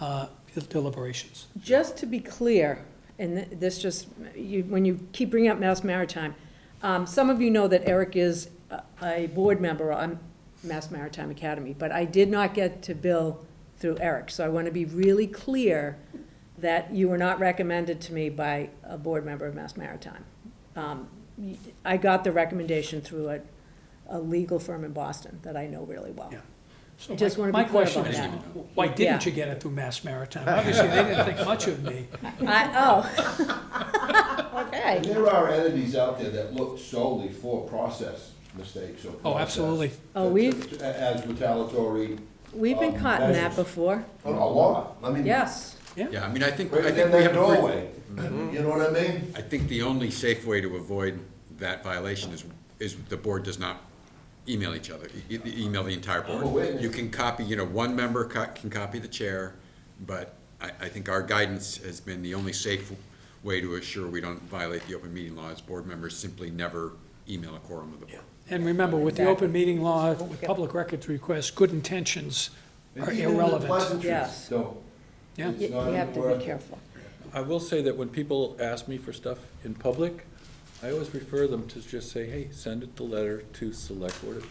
uh, deliberations. Just to be clear, and th- this just, you, when you keep bringing up Mass Maritime, um, some of you know that Eric is a- a board member on Mass Maritime Academy, but I did not get to Bill through Eric, so I want to be really clear that you were not recommended to me by a board member of Mass Maritime. Um, y- I got the recommendation through a, a legal firm in Boston that I know really well. Yeah. So I just my- wanna be My clear about question that. is, why didn't Yeah. you get it through Mass Maritime? Obviously, they didn't think much of me. I, oh. Okay. There are entities out there that look solely for process mistakes or process. Oh, absolutely. Oh, we've- As retaliatory, We've been Um, caught in that measures. before, a lot, I mean. yes. Yeah, I mean, I think, I Right think in we that have a pretty, Mm-hmm. doorway, you know what I mean? I think the only safe way to avoid that violation is, is the board does not email each other, e- e- email the entire I'm aware. board. You can copy, you know, one member co- can copy the chair, but I, I think our guidance has been the only safe way to assure we don't violate the open meeting laws. Board members simply never email a quorum of the board. And remember, with the open meeting law, with public records requests, good intentions are Even the irrelevant. pleasantries, Yes. though. Yeah. You It's you not even have to worth- be careful. I will say that when people ask me for stuff in public, I always refer them to just say, hey, send it the letter to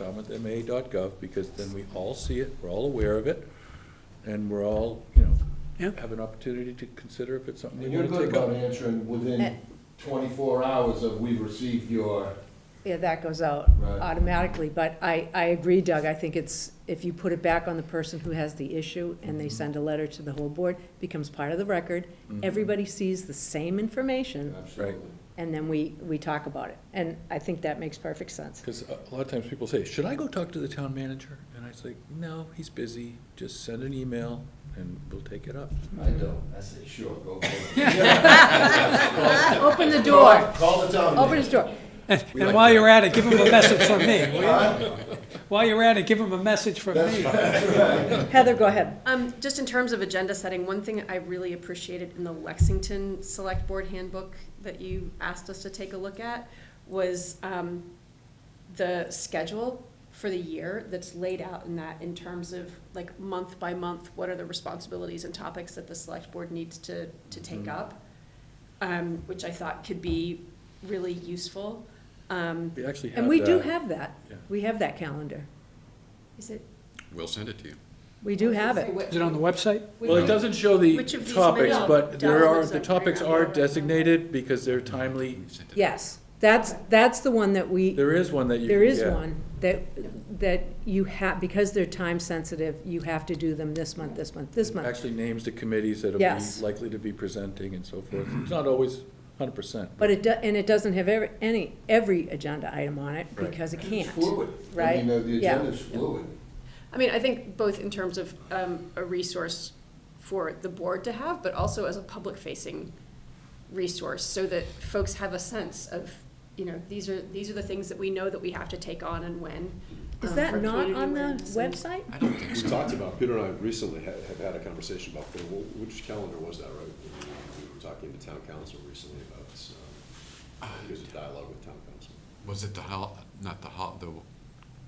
selectboard@falmouthma.gov, because then we all see it, we're all aware of it, and we're all, you know, Yeah. have an opportunity to consider if it's something we And you're want to good take about up. answering Eh. within twenty-four hours of we've received your, Yeah, that goes out Right. automatically, but I, I agree, Doug, I think it's, if you put it back on the person who has the issue and Mm-hmm. they send a letter to the whole board, becomes part of the record, everybody sees the same information, absolutely. and then we, we talk about it. And I think that makes perfect sense. Because a a lot of times people say, should I go talk to the town manager? And I say, no, he's busy, just send an email and we'll take it up. I don't, I say, sure, go for it. Ah, Open the door, Call the town. open manager. his door. And while you're at it, give them a message from me, will you? While you're at it, give them a message from me. Heather, go ahead. Um, just in terms of agenda setting, one thing I really appreciated in the Lexington Select Board Handbook that you asked us to take a look at was, um, the schedule for the year that's laid out in that in terms of like month by month, what are the responsibilities and topics that the select board needs to, to take up? Um, which I thought could be really useful. Um, We actually have And we do that. have that, Yeah. we have that calendar, is it? We'll send it to you. we do have it. Is it on the website? Well, it doesn't show the Which of these topics, might- but there are, Dollars the are topics greater. are designated because they're timely. We've sent it. Yes, that's, that's the one that we. There is one that you. There is yeah. one that, that you have, because they're time sensitive, you have to do them this month, this month, this month. Actually names the committees that'll Yes. be likely to be presenting and so forth. Mm-hmm. It's not always hundred percent. But it, do- and it doesn't have every, any, every agenda item on it, Right. because it It's can't. fluid. I right? mean, the- the Yeah. agenda's fluid. I mean, I think both in terms of um, a resource for the board to have, but also as a public-facing resource, so that folks have a sense of, you know, these are, these are the things that we know that we have to take on and when. Is um, for that not community on the awareness and- website? I don't think We so. talked about, Peter and I recently had, have had a conversation about, well, wh- which calendar was that, right? We were talking to town council recently about, um, there's a dialogue with town council. Was it the hol, not the hol, the,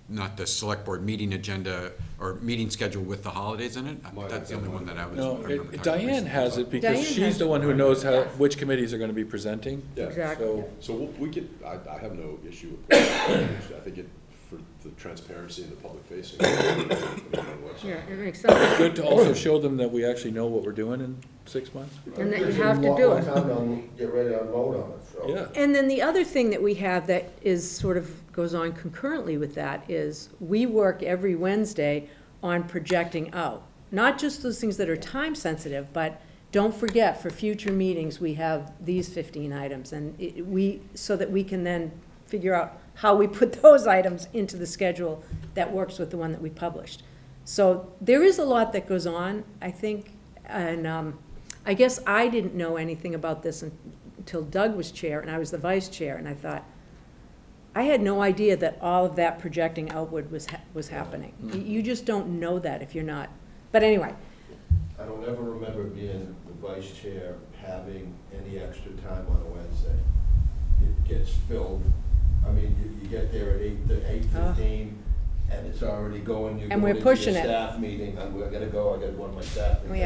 not the select board meeting agenda or meeting schedule with the holidays in it? Might- That's the only one that I was. I No, remember it- talking Diane recently has about. it because Diane has she's the it. one who knows how, which committees are gonna be presenting. Yeah. Exactly. So, So we'll- we could, I, I have no issue with that. I think it, for the transparency and the public facing. Yeah, it makes sense. good to also show them that we actually know what we're doing in six months. And that you Gives them have to more- do more it. time to Get ready to unload on it, Oh. so. Yeah. And then the other thing that we have that is sort of goes on concurrently with that is we work every Wednesday on projecting out. Not just those things that are time sensitive, but don't forget for future meetings, we have these fifteen items and it, we, so that we can then figure out how we put those items into the schedule that works with the one that we published. So there is a lot that goes on, I think, and, um, I guess I didn't know anything about this un- until Doug was chair and I was the vice chair, and I thought, I had no idea that all of that projecting outward was, ha- was happening. You- You just don't know that if you're not, but anyway, I don't ever remember being the vice chair having any extra time on a Wednesday. It gets filled, I mean, you, you get there at eight, eight fifteen, and it's already going, you're Uh-huh. And going we're into your pushing it. staff meeting, I'm, I gotta go, I gotta go to my staff meeting. We